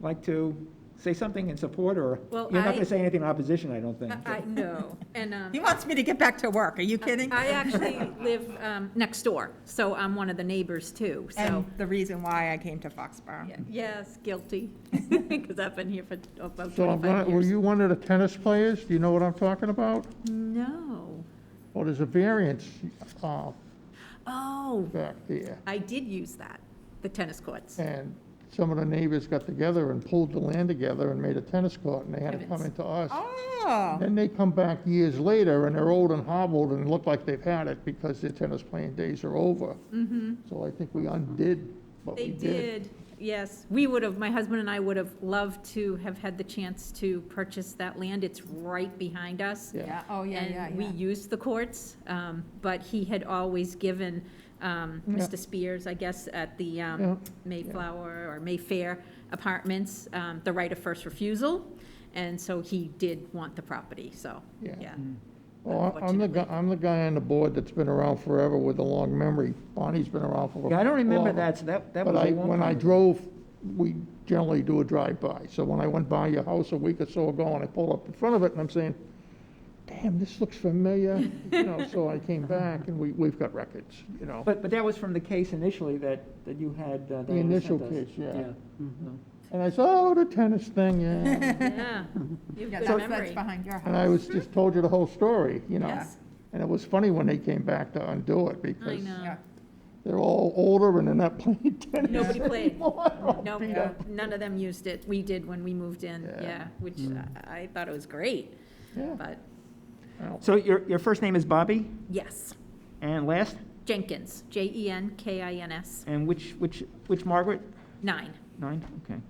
like to say something in support, or? Well, You're not I- going to say anything in opposition, I don't think. I I know, and. um, He wants me to get back to work, are you kidding? Uh, I actually live um, next door, so I'm one of the neighbors too, so. And the reason why I came to Foxborough. Yeah, Yes, guilty, because I've been here for about So I'm not, 25 were years. you one of the tennis players? Do you know what I'm talking about? No. Well, there's a variance uh, Oh, back there. I did use that, the tennis courts. And some of the neighbors got together and pulled the land together and made a tennis court, and they had to come Heavens. into us. Oh, Then they come back years later, and they're old and hobbled and look like they've had it because their tennis playing days are over. So I think we undid what They we did. did, yes. We would have, my husband and I would have loved to have had the chance to purchase that land. It's right behind us. Yeah. yeah, oh, yeah, yeah, And we yeah. used the courts, um, but he had always given um, Yeah. Mr. Spears, I guess, at the um, Yeah. Mayflower or Mayfair Apartments, um, the right of first refusal, and so he did want the property, so, Yeah. yeah. Well, Oh, I- I'm the guy, I'm the guy on the board that's been around forever with a long memory. Bonnie's been around for. Yeah, I don't remember forever. that, so that, that was But a long I, time. when I ago. drove, we generally do a drive-by, so when I went by your house a week or so ago, and I pulled up in front of it, and I'm saying, damn, this looks familiar, you know, so I came back, and we, we've got records, you know. But, but that was from the case initially that, that you had, uh, Diana The initial sent us. case, yeah. Mm-hmm. mhm. And I said, oh, the tennis thing, yeah, Yeah, you Yeah, have good that's, that's memory. behind your and I house. was, just told you the whole story, you know. Yes. And it was funny when they came back to undo it, I because know. Yeah. they're all older and they're not playing tennis Nobody played. anymore. No, Beat no, up. none of them used it. We did when we moved in, Yeah. yeah, which I I thought it was great, Yeah, but, well, So your, your first name is Bobby, yes. and last, Jenkins, E J-E-N-K-I-N-S, and which, which, which Margaret? nine. Nine, okay.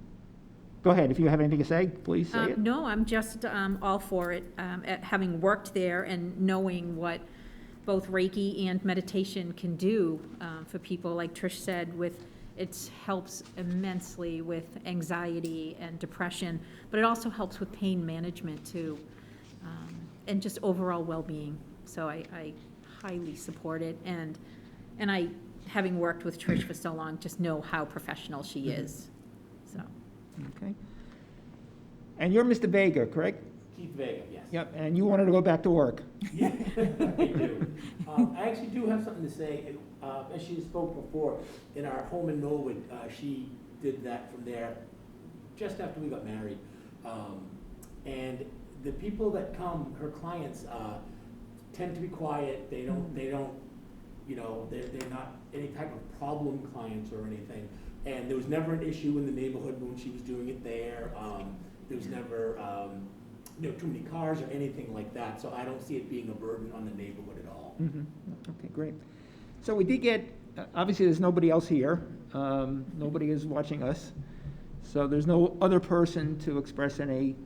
Go ahead, if you have anything to say, please say Um, it. No, I'm just um, all for it, um, at- having worked there and knowing what both Reiki and meditation can do um, for people, like Trish said, with, it helps immensely with anxiety and depression, but it also helps with pain management too, um, and just overall well-being. So I I highly support it, and, and I, having worked with Trish for so long, just know how professional she Mm-hmm. is, so. Okay. And you're Mr. Vega, correct? Keith Vega, yes. Yep, and you wanted to go back to work. Yeah, I do. Um, I actually do have something to say, and, uh, as she spoke before, in our home in Norwood, uh, she did that from there just after we got married. Um, and the people that come, her clients, uh, tend to be quiet, they don't, they don't, you know, they're, they're not any type of problem clients or anything. And there was never an issue in the neighborhood when she was doing it there, um, there was never, um, you know, too many cars or anything like that, so I don't see it being a burden on the neighborhood at all. Mhm. Okay, great. So we did get, uh, obviously, there's nobody else here. Um, Nobody is watching us. So there's no other person to express any,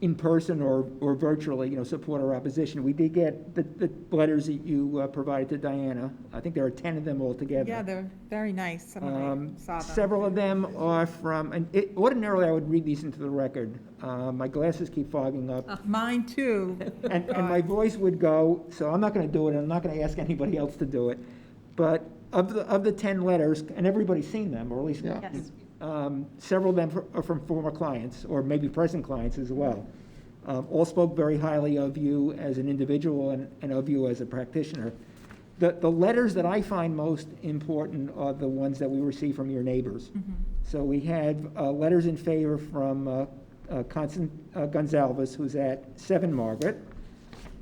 in person or, or virtually, you know, support or opposition. We did get the, the letters that you uh, provided to Diana. I think there are 10 of them altogether. Yeah, they're very nice, some Um, of them, I saw them. Several of them are from, and it- ordinarily, I would read these into the record. Uh, My glasses keep fogging up. Uh-huh. Mine too. And, and my voice would go, so I'm not gonna do it, and I'm not gonna ask anybody else to do it. But of the, of the ten letters, and everybody's seen them, or at least, yeah. Yes. um, several of them fr- are from former clients, or maybe present clients as well. Um, all spoke very highly of you as an individual and, and of you as a practitioner. The, the letters that I find most important are the ones that we receive from your neighbors. Mhm. So we had uh, letters in favor from uh, uh, Constan- uh, Gonzalez, who's at 7 Margaret,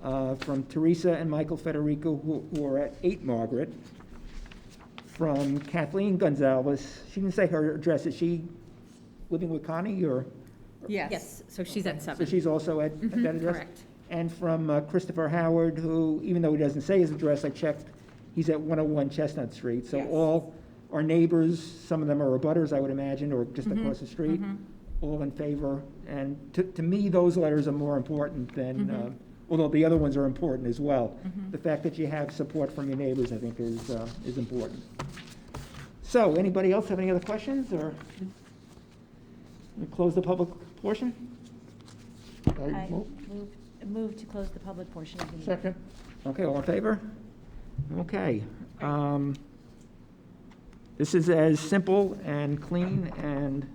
uh, from Teresa and Michael Federico, who who are at 8 Margaret, from Kathleen Gonzalez, she didn't say her address, is she living with Connie, or, Yes. Yes, so she's at so seven. she's also at at that Mhm, address? Correct. And from uh, Christopher Howard, who, even though he doesn't say his address, I checked, he's at 101 Chestnut Street. So Yes. all our neighbors, some of them are abutters, I would imagine, or just Mhm, Mm-hmm, across the street, mhm. all in favor. And to, to me, those letters are more important than, Mhm. Mm-hmm. uh, although the other ones are important as well. Mhm. The fact that you have support from your neighbors, I think, is, uh, is important. So, anybody else have any other questions, or? we Close the public portion? I- I well, move, move to close the public portion of the meeting. Second? Okay, all in favor? Okay. um, This is as simple and clean and